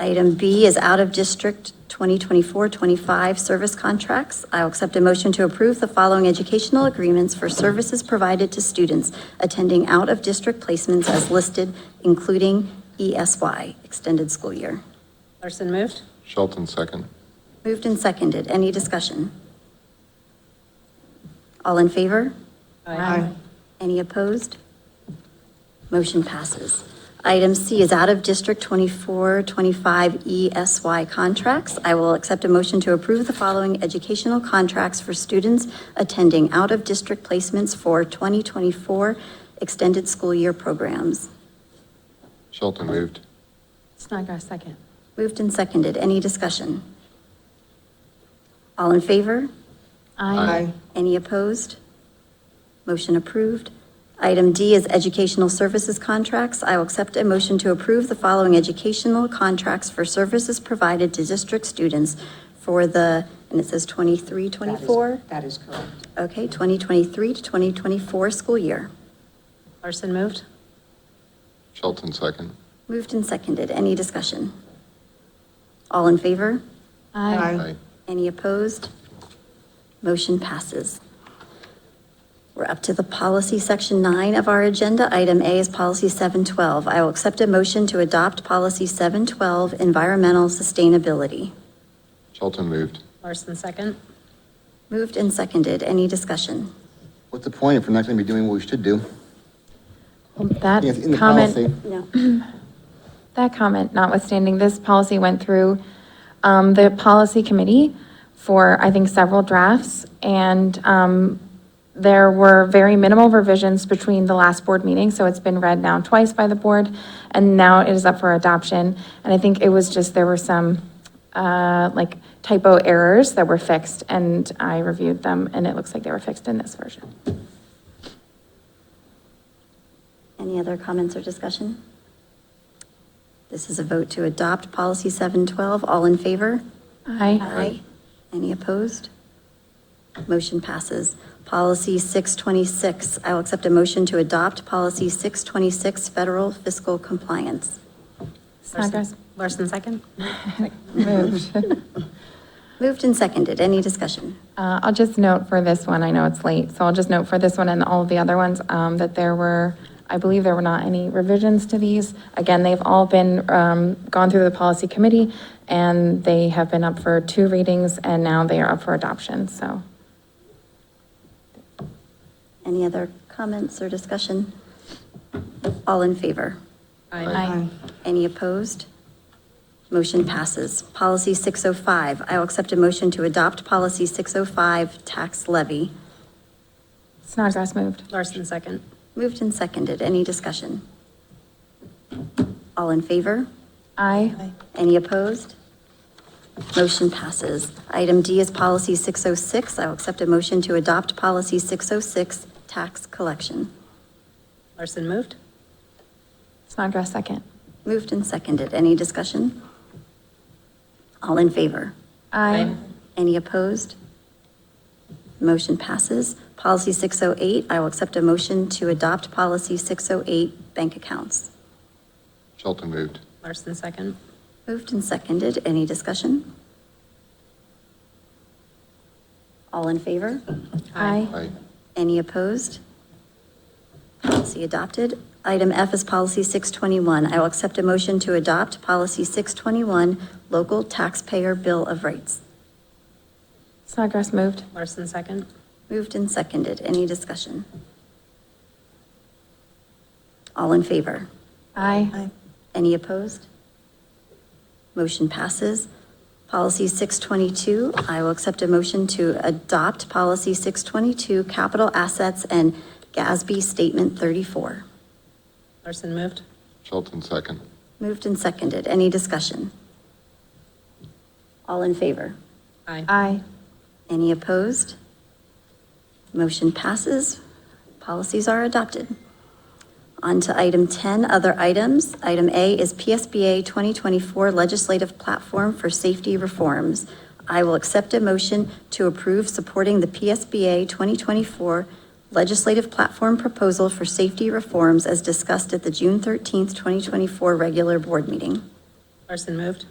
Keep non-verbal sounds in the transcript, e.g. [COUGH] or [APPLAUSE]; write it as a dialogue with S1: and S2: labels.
S1: Item B is out of district 2024-25 service contracts. I will accept a motion to approve the following educational agreements for services provided to students attending out of district placements as listed, including ESY, extended school year.
S2: Larson moved.
S3: Shelton second.
S1: Moved and seconded. Any discussion? All in favor?
S2: Aye.
S1: Any opposed? Motion passes. Item C is out of District 24, 25 ESY contracts. I will accept a motion to approve the following educational contracts for students attending out-of-district placements for 2024 extended school year programs.
S3: Shelton moved.
S2: Snodgrass second.
S1: Moved and seconded. Any discussion? All in favor?
S3: Aye.
S1: Any opposed? Motion approved. Item D is educational services contracts. I will accept a motion to approve the following educational contracts for services provided to district students for the, and it says 23, 24?
S4: That is correct.
S1: Okay, 2023 to 2024 school year.
S2: Larson moved.
S3: Shelton second.
S1: Moved and seconded. Any discussion? All in favor?
S4: Aye.
S3: Aye.
S1: Any opposed? Motion passes. We're up to the policy section nine of our agenda. Item A is policy 712. I will accept a motion to adopt policy 712, environmental sustainability.
S3: Shelton moved.
S2: Larson second.
S1: Moved and seconded. Any discussion?
S5: What's the point if we're not going to be doing what we should do?
S6: Well, um, That
S5: Yes, in the policy.
S6: comment,
S1: No.
S6: that comment notwithstanding, this policy went through um, the policy committee for, I think, several drafts, and um, there were very minimal revisions between the last board meeting, so it's been read now twice by the board, and now it is up for adoption. And I think it was just, there were some, uh, like typo errors that were fixed, and I reviewed them, and it looks like they were fixed in this version.
S1: Any other comments or discussion? This is a vote to adopt policy 712. All in favor?
S6: Aye.
S1: Aye. Any opposed? Motion passes. Policy 626, I will accept a motion to adopt policy 626, federal fiscal compliance.
S6: Snodgrass?
S2: Larson second.
S6: [LAUGHS] Moved.
S1: Moved and seconded, any discussion?
S6: Uh, I'll just note for this one, I know it's late, so I'll just note for this one and all of the other ones, um, that there were, I believe there were not any revisions to these. Again, they've all been, um, gone through the policy committee, and they have been up for two readings, and now they are up for adoption, so.
S1: Any other comments or discussion? All in favor?
S2: Aye.
S1: Any opposed? Motion passes. Policy 605, I will accept a motion to adopt policy 605, tax levy.
S6: Snodgrass moved.
S2: Larson second.
S1: Moved and seconded, any discussion? All in favor?
S6: Aye.
S1: Any opposed? Motion passes. Item D is Policy 606. I will accept a motion to adopt Policy 606, Tax Collection.
S2: Larson moved.
S6: Snodgrass second.
S1: Moved and seconded. Any discussion? All in favor?
S2: Aye.
S1: Any opposed? Motion passes. Policy 608, I will accept a motion to adopt Policy 608, Bank Accounts.
S3: Shelton moved.
S2: Larson second.
S1: Moved and seconded. Any discussion? All in favor?
S6: Aye.
S3: Aye.
S1: Any opposed? Policy adopted. Item F is Policy 621. I will accept a motion to adopt Policy 621, Local Taxpayer Bill of Rights.
S6: Snodgrass moved.
S2: Larson second.
S1: Moved and seconded. Any discussion? All in favor?
S6: Aye.
S1: Any opposed? Motion passes. Policy 622, I will accept a motion to adopt Policy 622, Capital Assets and GASB Statement 34.
S2: Larson moved.
S3: Shelton second.
S1: Moved and seconded. Any discussion? All in favor?
S2: Aye.
S6: Aye.
S1: Any opposed? Motion passes. Policies are adopted. On to item 10, other items. Item A is PSBA 2024 Legislative Platform for Safety Reforms. I will accept a motion to approve supporting the PSBA 2024 Legislative Platform Proposal for Safety Reforms as discussed at the June 13th, 2024 regular board meeting.
S2: Larson moved.